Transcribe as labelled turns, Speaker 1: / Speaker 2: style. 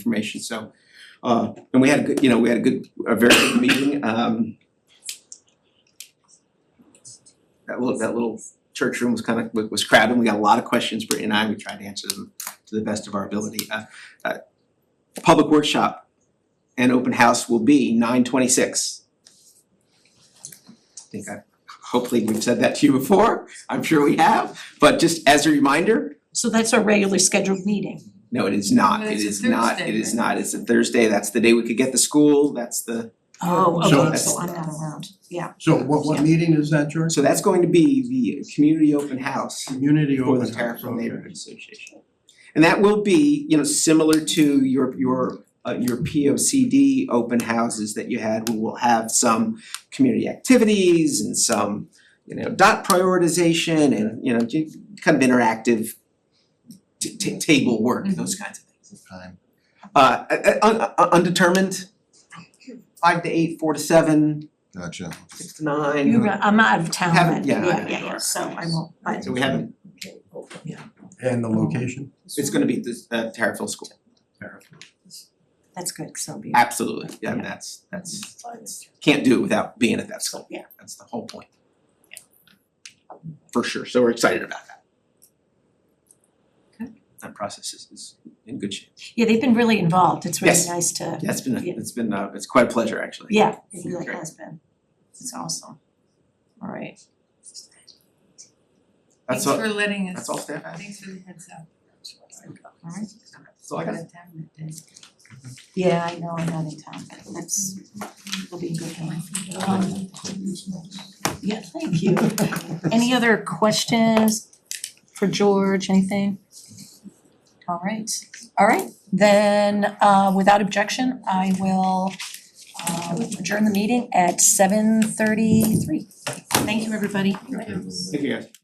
Speaker 1: information, so. Uh and we had a good, you know, we had a good, a very good meeting, um. That little, that little church room was kind of, was crowded, we got a lot of questions, Brittany and I, we tried to answer them to the best of our ability. Uh uh public workshop and open house will be nine twenty-six. I think I, hopefully we've said that to you before, I'm sure we have, but just as a reminder,
Speaker 2: So that's our regularly scheduled meeting.
Speaker 1: no, it is not,
Speaker 3: No,
Speaker 1: it
Speaker 3: it's a
Speaker 1: is not, it
Speaker 3: Thursday,
Speaker 1: is
Speaker 3: right?
Speaker 1: not, it's a Thursday, that's the day we could get the school, that's the,
Speaker 2: Oh,
Speaker 4: So-
Speaker 2: okay, so I'm not around, yeah.
Speaker 4: So what what meeting is that, George?
Speaker 1: so that's going to be the community open house
Speaker 4: Community
Speaker 1: for
Speaker 4: open
Speaker 1: the
Speaker 4: house,
Speaker 1: Tarrytown
Speaker 4: okay.
Speaker 1: Neighborhood Association. And that will be, you know, similar to your your uh your P O C D open houses that you had, we will have some community activities and some, you know, dot prioritization and, you know, ju- kind of interactive t- t- table work,
Speaker 3: Mm-hmm.
Speaker 1: those kinds of things.
Speaker 4: Time.
Speaker 1: Uh, uh, un- un- undetermined, five to eight, four to seven,
Speaker 5: Gotcha.
Speaker 1: six to nine.
Speaker 2: You're, right, I'm out of town
Speaker 1: Haven't-
Speaker 2: that,
Speaker 1: yeah,
Speaker 2: yeah,
Speaker 1: I
Speaker 2: yeah,
Speaker 1: know you
Speaker 2: yeah,
Speaker 1: are.
Speaker 2: so I won't, but,
Speaker 1: So we haven't,
Speaker 4: And the location?
Speaker 1: it's gonna be this uh Terriffill School,
Speaker 2: that's good, so be it.
Speaker 1: absolutely, yeah, and that's that's can't do it without being at that school,
Speaker 2: Yeah.
Speaker 1: that's the whole point. For sure, so we're excited about that.
Speaker 2: Good.
Speaker 1: That process is is in good shape.
Speaker 2: Yeah, they've been really involved, it's really
Speaker 1: Yes.
Speaker 2: nice to,
Speaker 1: Yeah, it's been, a-
Speaker 2: Yeah.
Speaker 1: it's been, uh, it's quite a pleasure, actually.
Speaker 2: yeah, it really
Speaker 1: Great.
Speaker 2: has been. It's awesome. All right,
Speaker 1: That's
Speaker 3: Thanks
Speaker 1: all,
Speaker 3: for letting us.
Speaker 1: that's all staff has.
Speaker 3: Thanks for the heads up.
Speaker 2: all right.
Speaker 1: That's all I got.
Speaker 3: Out of town that day.
Speaker 2: Yeah, I know, I'm out of town, but that's, will be a good one. Um, Yeah, thank you. Any other questions for George, anything? All right, all right, then uh without objection, I will um adjourn the meeting at seven thirty-three. Thank you, everybody.
Speaker 1: Thank you, guys.